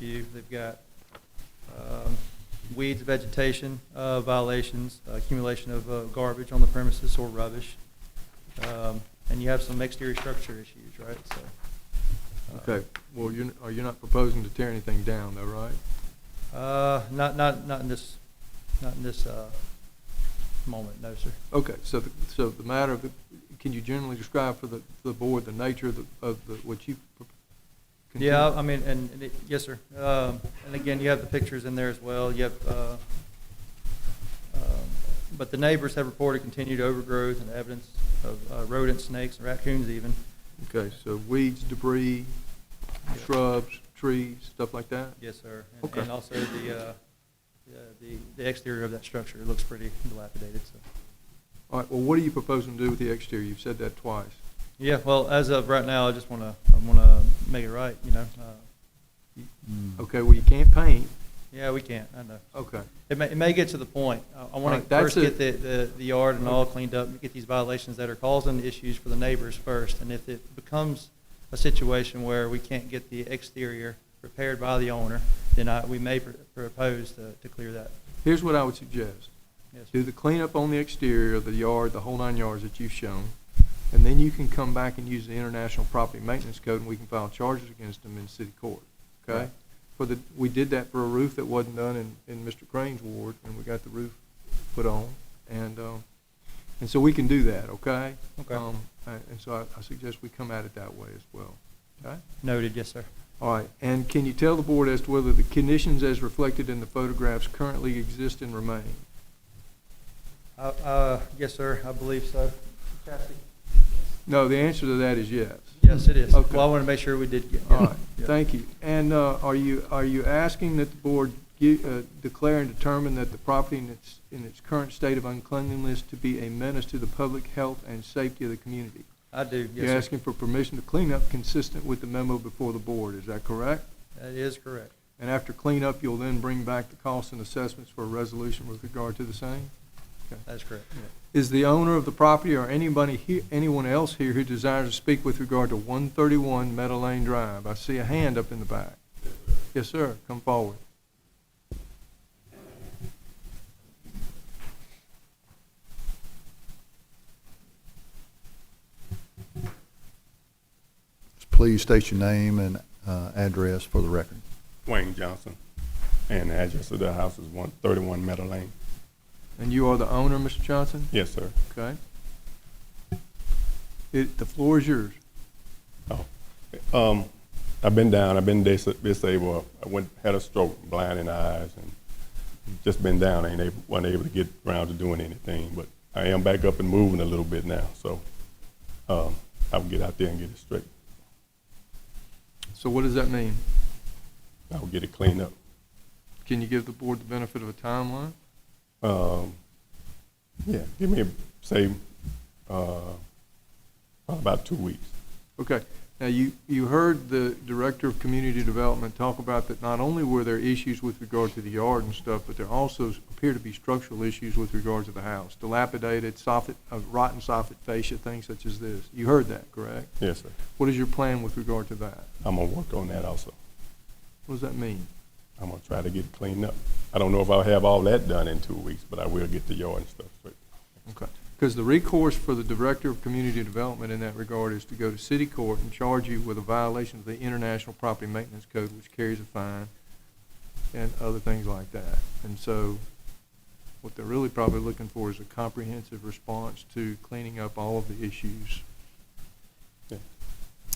few. They've got um, weeds, vegetation uh, violations, accumulation of uh, garbage on the premises or rubbish. Um, And you have some exterior structure issues, right? So. uh, Okay, well, you, are you not proposing to tear anything down though, right? Uh, not, not, not in this, not in this, uh, moment, no, sir. Okay, so, the- so the matter of, the can you generally describe for the, the board the nature of the, of the, what you? pro- Yeah, continue- I mean, and, and it- yes, sir. Um, and again, you have the pictures in there as well. You have, uh, um, but the neighbors have reported continued overgrowth and evidence of uh, rodents, snakes, and raccoons even. Okay, so weeds, debris, shrubs, trees, stuff like that? Yes, sir. And- Okay. And also the, uh, the- the, the exterior of that structure looks pretty dilapidated, so. All right, well, what are you proposing to do with the exterior? You've said that twice. Yeah, well, as of right now, I just wanna, I wanna make it right, you know? Uh, Okay, well, you can't paint. Yeah, we can't, I know. Okay, It may, it may get to the point. I- I want Right, to that's first get the, it. the, the yard and all cleaned up, and get these violations that are causing issues for the neighbors first. And if it becomes a situation where we can't get the exterior repaired by the owner, then I, we may pr- propose to, to clear that. here's what I would suggest. Yes, sir. Do the cleanup on the exterior of the yard, the whole nine yards that you've shown, and then you can come back and use the International Property Maintenance Code, and we can file charges against them in city court, okay? Right. For the, we did that for a roof that wasn't done in, in Mr. Crane's ward, and we got the roof put on, and, um, and so we can do that, okay? Okay. Um, And and so I- I suggest we come at it that way as well, okay? Noted, yes, sir. All right, and can you tell the board as to whether the conditions as reflected in the photographs currently exist and remain? Uh, uh, yes, sir, I believe so. No, the answer to that is yes. Yes, it is. Okay. Well, I want to make sure we did get. All right, Yeah. thank you. And uh, are you, are you asking that the board gi- uh, declare and determine that the property in its, in its current state of uncleanliness to be a menace to the public health and safety of the community? I do, yes, sir. You're asking for permission to clean up consistent with the memo before the board, is that correct? That is correct. And after cleanup, you'll then bring back the costs and assessments for a resolution with regard to the same? Okay. That is correct. Is the owner of the property or anybody here, anyone else here who desires to speak with regard to one thirty-one Meadow Lane Drive? I see a hand up in the back. Yes, sir, come forward. Please state your name and uh, address for the record. Wayne Johnson, and the address of the house is one thirty-one Meadow Lane. And you are the owner, Mr. Johnson? Yes, sir. Okay. It, the floor is yours. Oh, um, I've been down. I've been dis- disabled. I went had a stroke, blind in the eyes, and just been down. Ain't able, wasn't able to get around to doing anything. But I am back up and moving a little bit now. So um, I'll get out there and get it straight. So what does that mean? I'll get it cleaned up. Can you give the board the benefit of a timeline? Um, yeah, give me say uh, about two weeks. Okay. Now, you, you heard the Director of Community Development talk about that not only were there issues with regard to the yard and stuff, but there also appear to be structural issues with regard to the house, dilapidated, soffit, uh, rotten soffit fascia, things such as this. You heard that, correct? Yes, sir. What is your plan with regard to that? I'm gonna work on that also. What does that mean? I'm gonna try to get it cleaned up. I don't know if I'll have all that done in two weeks, but I will get the yard and stuff straight. Okay. Because the recourse for the Director of Community Development in that regard is to go to city court and charge you with a violation of the International Property Maintenance Code, which carries a fine and other things like that. And so what they're really probably looking for is a comprehensive response to cleaning up all of the issues. Yeah.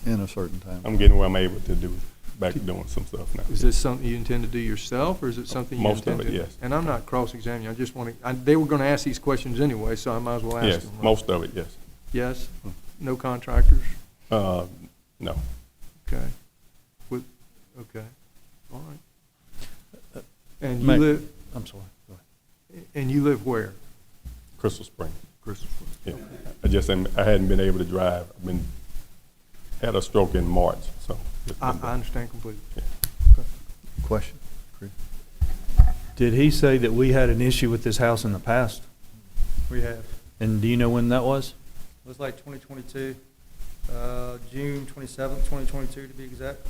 In a certain time. I'm getting where I'm able to do, back to doing some stuff now. Is this something you intend to do yourself, or is it something you Most of intend to? it, yes. And I'm not cross-examining, I just want to, they were going to ask these questions anyway, so I might as well ask Yes, them. right? most of it, yes. Yes? No contractors? Uh, no, Okay. With, okay, all right. And you Ma'am. live, I'm sorry. Go ahead. and you live where? Crystal Spring, Crystal. yeah. I just, am- I hadn't been able to drive. I've been, had a stroke in March, so. it's I, been I bad. understand completely. Yeah. Okay. Question? Chris? Did he say that we had an issue with this house in the past? We have. And do you know when that was? It was like 2022, uh, June 27th, 2022 to be exact.